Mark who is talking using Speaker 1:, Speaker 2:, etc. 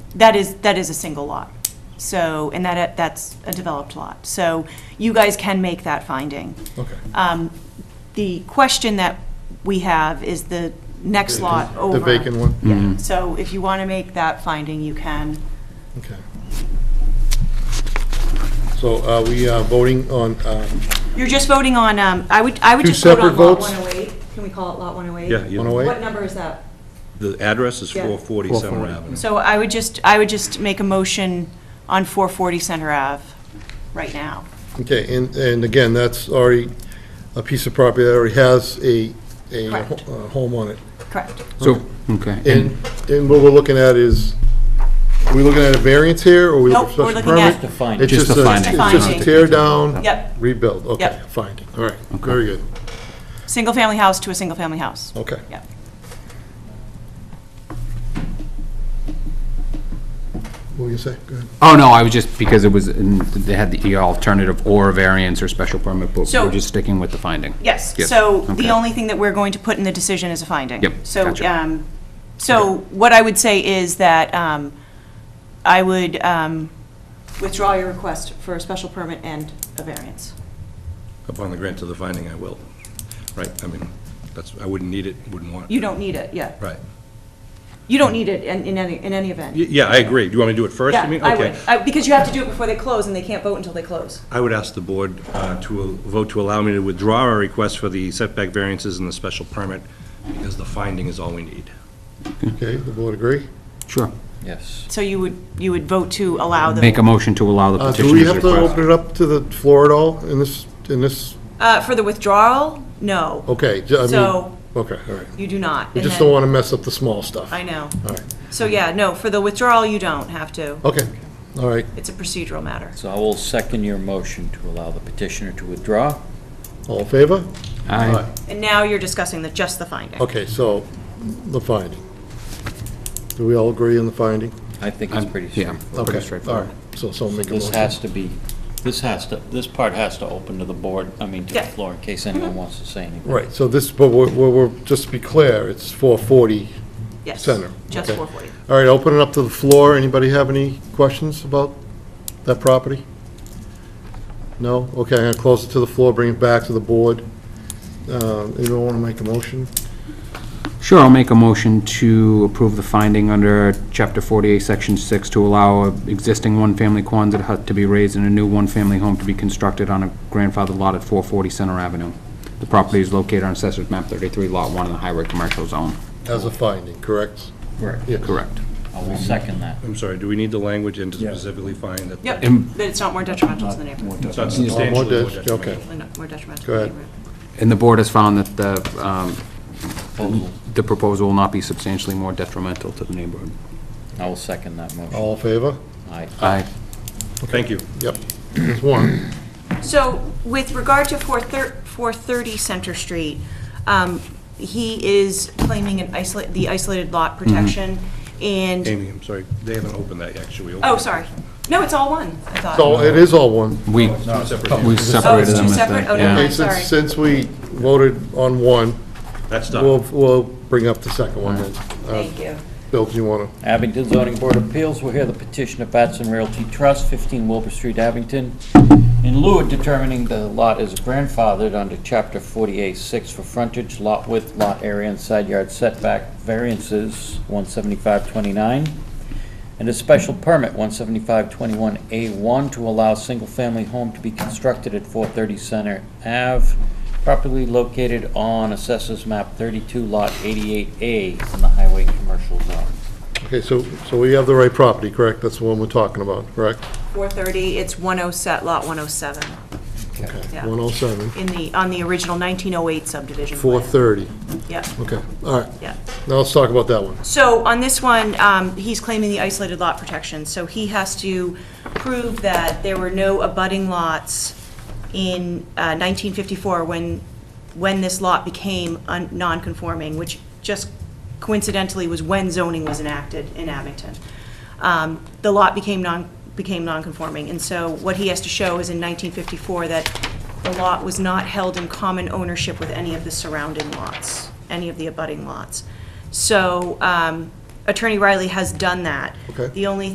Speaker 1: That is, that is a single lot. So, and that, that's a developed lot. So you guys can make that finding.
Speaker 2: Okay.
Speaker 1: Um, The question that we have is the next lot over.
Speaker 2: The vacant one?
Speaker 1: Yeah, so if you want to make that finding, you can.
Speaker 2: Okay. So are we uh, voting on, uh,
Speaker 1: You're just voting on, um, I would, I would
Speaker 2: Two
Speaker 1: just vote on
Speaker 2: separate
Speaker 1: Lot
Speaker 2: votes?
Speaker 1: 108. Can we call it Lot 108?
Speaker 3: Yeah, you-
Speaker 2: on a
Speaker 1: What
Speaker 2: way?
Speaker 1: number is that?
Speaker 3: the address is
Speaker 1: Yeah.
Speaker 3: 440 Summer Avenue.
Speaker 1: So I would just, I would just make a motion on 440 Center Ave right now.
Speaker 2: Okay, and, and again, that's already a piece of property that already has a, a ho-
Speaker 1: Correct.
Speaker 2: uh, home on it.
Speaker 1: Correct.
Speaker 4: So, okay.
Speaker 2: And, and what we're looking at is, are we looking at a variance here, or are we
Speaker 1: Nope,
Speaker 2: looking for
Speaker 1: we're
Speaker 2: special
Speaker 1: looking at-
Speaker 2: permit?
Speaker 1: Just a
Speaker 5: finding.
Speaker 2: It's
Speaker 4: Just
Speaker 2: just a,
Speaker 4: a
Speaker 2: it's
Speaker 4: finding.
Speaker 2: just
Speaker 1: Finding.
Speaker 2: a tear down,
Speaker 1: Yep.
Speaker 2: rebuild, okay,
Speaker 1: Yep.
Speaker 2: finding, all right, very good,
Speaker 1: Single-family house to a single-family house.
Speaker 2: okay.
Speaker 1: Yep.
Speaker 2: What were you gonna say? Go ahead.
Speaker 4: Oh, no, I was just, because it was, in- they had the alternative or variance or special permit, but
Speaker 1: So-
Speaker 4: we're just sticking with the finding.
Speaker 1: Yes,
Speaker 4: Yes,
Speaker 1: so the
Speaker 4: okay.
Speaker 1: only thing that we're going to put in the decision is a finding.
Speaker 4: Yep,
Speaker 1: So,
Speaker 4: gotcha.
Speaker 1: um, so what I would say is that um, I would um, withdraw your request for a special permit and a variance.
Speaker 3: Upon the grant of the finding, I will. Right, I mean, that's, I wouldn't need it, wouldn't want it.
Speaker 1: You don't need it, yeah.
Speaker 3: Right.
Speaker 1: You don't need it in in any, in any event.
Speaker 3: Y- Yeah, I agree. Do you want me to do it first?
Speaker 1: Yeah,
Speaker 3: mean,
Speaker 1: I
Speaker 3: okay.
Speaker 1: would, I- because you have to do it before they close, and they can't vote until they close.
Speaker 3: I would ask the board uh, to al- vote to allow me to withdraw our request for the setback variances and the special permit, because the finding is all we need.
Speaker 2: Okay, the board agree?
Speaker 4: Sure.
Speaker 5: Yes.
Speaker 1: So you would, you would vote to allow
Speaker 4: Make a
Speaker 1: the,
Speaker 4: motion to allow the
Speaker 2: Uh, do we
Speaker 4: petitioner's
Speaker 2: have to open
Speaker 4: request.
Speaker 2: it up to the floor at all in this, in this,
Speaker 1: uh, for the withdrawal? No,
Speaker 2: okay, j- I mean,
Speaker 1: So-
Speaker 2: okay, all right.
Speaker 1: you do not.
Speaker 2: We
Speaker 1: And
Speaker 2: just
Speaker 1: then-
Speaker 2: don't want to mess up the small stuff.
Speaker 1: I know.
Speaker 2: All right,
Speaker 1: So, yeah, no, for the withdrawal, you don't have to.
Speaker 2: okay, all right,
Speaker 1: It's a procedural matter.
Speaker 5: So I will second your motion to allow the petitioner to withdraw.
Speaker 2: all in favor?
Speaker 4: Aye.
Speaker 2: All right.
Speaker 1: And now you're discussing the, just the finding.
Speaker 2: Okay, so, the finding. Do we all agree on the finding?
Speaker 5: I think it's pretty
Speaker 4: Yeah,
Speaker 5: straightforward.
Speaker 2: Okay,
Speaker 4: pretty straightforward.
Speaker 2: All right, so, so make a
Speaker 5: This
Speaker 2: motion.
Speaker 5: has to be, this has to, this part has to open to the board, I mean, to the
Speaker 1: Yeah.
Speaker 5: floor, in case anyone wants to say anything.
Speaker 2: Right, so this, but we're, we're, we're- just to be clear, it's 440
Speaker 1: Yes.
Speaker 2: Center.
Speaker 1: Just
Speaker 2: Okay.
Speaker 1: 440.
Speaker 2: All right, open it up to the floor. Anybody have any questions about that property? No? Okay, I'm going to close it to the floor, bring it back to the board. Uh, Anyone want to make a motion?
Speaker 4: Sure, I'll make a motion to approve the finding under Chapter 48, Section 6, to allow a existing one-family Quonset hut to be raised and a new one-family home to be constructed on a grandfather lot at 440 Center Avenue. The property is located on Assessor's Map 33, Lot 1 in the Highway Commercial Zone.
Speaker 2: As a finding, correct?
Speaker 5: Correct.
Speaker 2: Yeah.
Speaker 4: Correct.
Speaker 5: I will second that.
Speaker 3: I'm sorry, do we need the language and to specifically find that?
Speaker 1: Yep,
Speaker 4: And-
Speaker 1: but it's not more detrimental to the neighborhood.
Speaker 3: It's not substantially more
Speaker 2: dis-
Speaker 3: detrimental.
Speaker 2: okay.
Speaker 1: Not More detrimental to
Speaker 2: Go
Speaker 1: the
Speaker 2: ahead.
Speaker 1: neighborhood.
Speaker 4: And the board has found that the, um, the proposal will not be substantially more detrimental to the neighborhood.
Speaker 5: I will second that motion.
Speaker 2: All in favor?
Speaker 5: Aye.
Speaker 1: Uh,
Speaker 4: Aye.
Speaker 3: Thank you.
Speaker 2: Yep. There's one.
Speaker 1: So with regard to 430 430 Center Street, um, he is claiming an isolate, the isolated lot protection, and,
Speaker 3: Amy, I'm sorry, they haven't opened that yet, should we? open
Speaker 1: oh,
Speaker 3: it?
Speaker 1: sorry. No, it's all one, I thought.
Speaker 2: So it is all one.
Speaker 4: We,
Speaker 3: No, it's separate.
Speaker 4: we
Speaker 1: Oh, it's
Speaker 4: separated them
Speaker 1: two
Speaker 4: as the,
Speaker 1: separate? Oh, never
Speaker 4: yeah.
Speaker 2: Okay,
Speaker 1: mind,
Speaker 2: since,
Speaker 1: sorry.
Speaker 2: since we voted on one,
Speaker 3: That's
Speaker 2: we'll,
Speaker 3: done.
Speaker 2: we'll bring up the second one then. Uh,
Speaker 1: Thank you.
Speaker 2: Bill, do you want to?
Speaker 5: Abington Zoning Board of Appeals will hear the petition of Batson Realty Trust, 15 Wilbur Street, Abington. In lieu of determining the lot is grandfathered under Chapter 48-6 for frontage, lot width, lot area, and side yard setback variances, 175-29, and a special permit, 175-21A1, to allow single-family home to be constructed at 430 Center Ave, properly located on Assessors Map 32, Lot 88A, in the Highway Commercial Zone.
Speaker 2: Okay, so, so we have the right property, correct? That's the one we're talking about, correct?
Speaker 1: 430, it's 107, lot 107, Yeah.
Speaker 2: 107,
Speaker 1: in the, on the original 1908 subdivision. plan.
Speaker 2: 430.
Speaker 1: Yeah,
Speaker 2: Okay, all right.
Speaker 1: yeah.
Speaker 2: Now let's talk about that one.
Speaker 1: So on this one, um, he's claiming the isolated lot protection, so he has to prove that there were no abutting lots in uh, 1954 when, when this lot became un- non-conforming, which just coincidentally was when zoning was enacted in Abington. Um, The lot became non, became non-conforming, and so what he has to show is in 1954 that the lot was not held in common ownership with any of the surrounding lots, any of the abutting lots. So um, Attorney Riley has done that.
Speaker 2: Okay.
Speaker 1: The only